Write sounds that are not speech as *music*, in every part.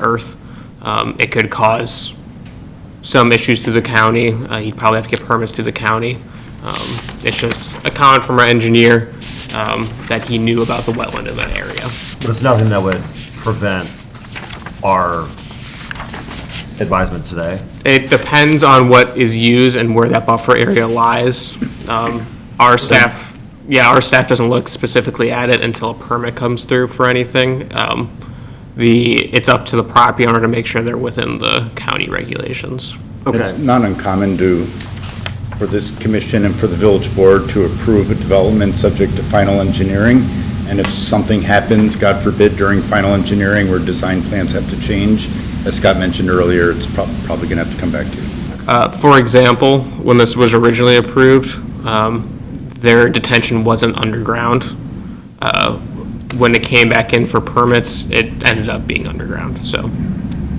earth. Um, It could cause some issues through the county. Uh, He'd probably have to get permits through the county. Um, It's just a comment from our engineer um, that he knew about the wetland in that area. But it's nothing that would prevent our advisement today. It depends on what is used and where that buffer area lies. Um, Our staff, yeah, our staff doesn't look specifically at it until a permit comes through for anything. Um, The, it's up to the property owner to make sure they're within the county regulations. It's not uncommon to, for this commission and for the village board to approve a development subject to final engineering. And if something happens, God forbid, during final engineering where design plans have to change, as Scott mentioned earlier, it's prob- probably going to have to come back to you. Uh, For example, when this was originally approved, um, their detention wasn't underground. Uh, When it came back in for permits, it ended up being underground, so.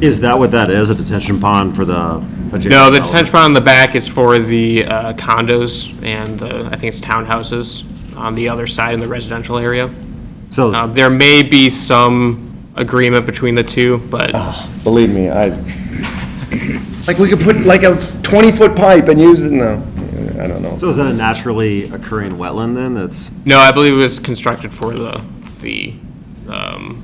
Is that what that is, a detention pond for the? No, the detention pond on the back is for the uh, condos and the, I think it's townhouses on the other side in the residential area. Uh, So, There may be some agreement between the two, but Believe me, *laughs* I, Like we could put like a 20-foot pipe and use it, no, I don't know. so is that a naturally occurring wetland then that's, no, I believe it was constructed for the, the um,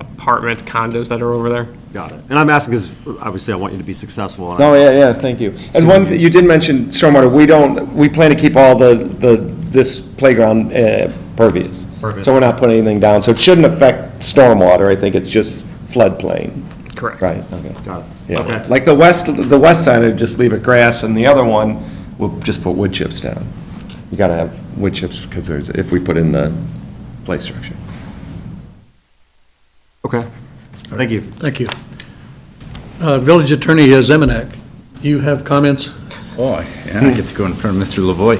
apartment condos that are over there. got it. And I'm asking because obviously I want you to be successful. and I- no, yeah, yeah, thank you. And one, thi- you did mention stormwater, we don't, we plan to keep all the, the, this playground uh, pervious. Pervious. So we're not putting anything down, so it shouldn't affect stormwater, I think it's just floodplain. Correct. Right, okay. Got it. Yeah, Okay. like the west, the west side, I'd just leave it grass, and the other one, we'll just put wood chips down. You gotta have wood chips, because there's, if we put in the play *laughs* structure. Okay, thank you. Thank you. Uh, Village Attorney Zemanek, do you have comments? Oh, yeah, I get to go in front of Mr. Lavoy.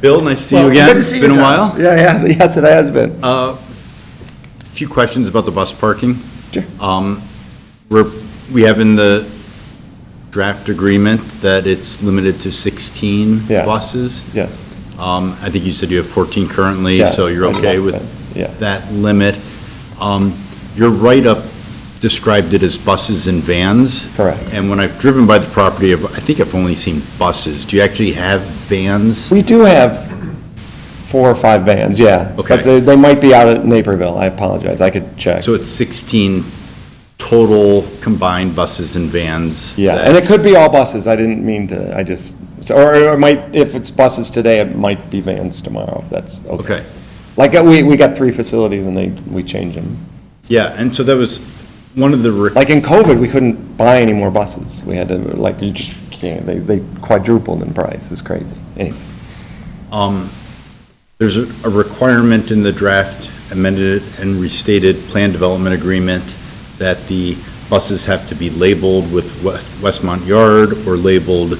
Bill, nice to see you again. Good to It's see been a you, John. while. Uh, Yeah, yeah, *laughs* yes, it has been. A Few questions about the bus parking. Sure. Um, We're, we have in the draft agreement that it's limited to 16 Yeah. buses. Yes, Um, I think you said you have 14 currently, Yeah, so you're I'd okay like with that, yeah. that limit. Um, Your write-up described it as buses and vans. Correct. And when I've driven by the property, I've- I think I've only seen buses. Do you actually have vans? we do have four or five vans, yeah. Okay. But they, they might be out at Naperville, I apologize, I could check. So it's 16 total combined buses and vans? Yeah, that- and it could be all buses, I didn't mean to, I just, so- or it might, if it's buses today, it might be vans tomorrow, if that's okay. Okay, Like, uh, we, we got three facilities and they, we changed them. yeah, and so that was one of the, re- Like in COVID, we couldn't buy any more buses. We had to, like, you just can't, they, they quadrupled in price. It was crazy. Anyway, um, there's a a requirement in the draft amended and restated plan development agreement that the buses have to be labeled with West- Westmont Yard or labeled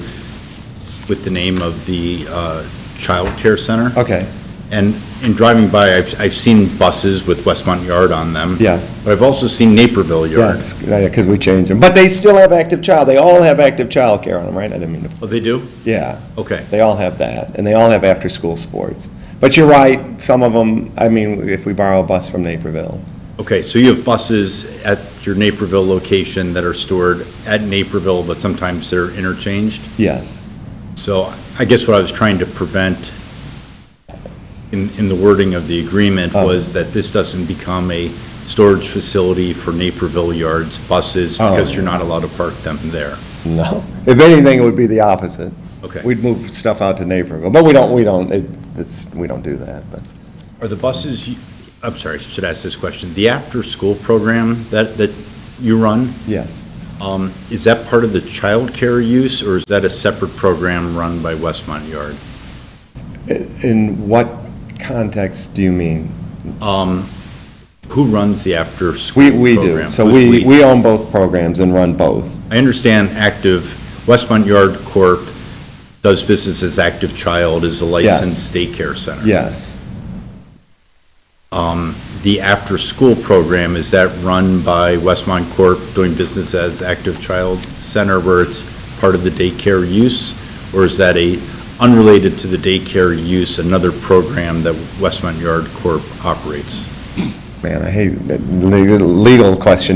with the name of the uh, childcare center. okay, And in driving by, I've, I've seen buses with Westmont Yard on them. yes, But I've also seen Naperville Yard. yes, because we changed them. But they still have active child, they all have active childcare on them, right? I didn't mean to, Oh, they do? yeah, Okay, they all have that, and they all have after-school sports. But you're right, some of them, I mean, if we borrow a bus from Naperville, okay, so you have buses at your Naperville location that are stored at Naperville, but sometimes they're interchanged? yes, So I guess what I was trying to prevent in, in the wording of the agreement Oh. was that this doesn't become a storage facility for Naperville Yards buses Oh. because you're not allowed to park them there. no. If anything, it would be the opposite. Okay. We'd move stuff out to Naperville, but we don't, we don't, it- it's, we don't do that, but. Are the buses, you- I'm sorry, I should ask this question. The after-school program that, that you run, Yes. um, is that part of the childcare use or is that a separate program run by Westmont Yard? In what context do you mean? Um, Who runs the after-school We, program? we do. So Who's we, we own both programs and run both. I understand Active, Westmont Yard Corp. does business as Active Child, is a licensed daycare center. Yes. Um, The after-school program, is that run by Westmont Corp. doing business as Active Child Center where it's part of the daycare use? Or is that a, unrelated to the daycare use, another program that Westmont Yard Corp. operates? Man, I hate, legal question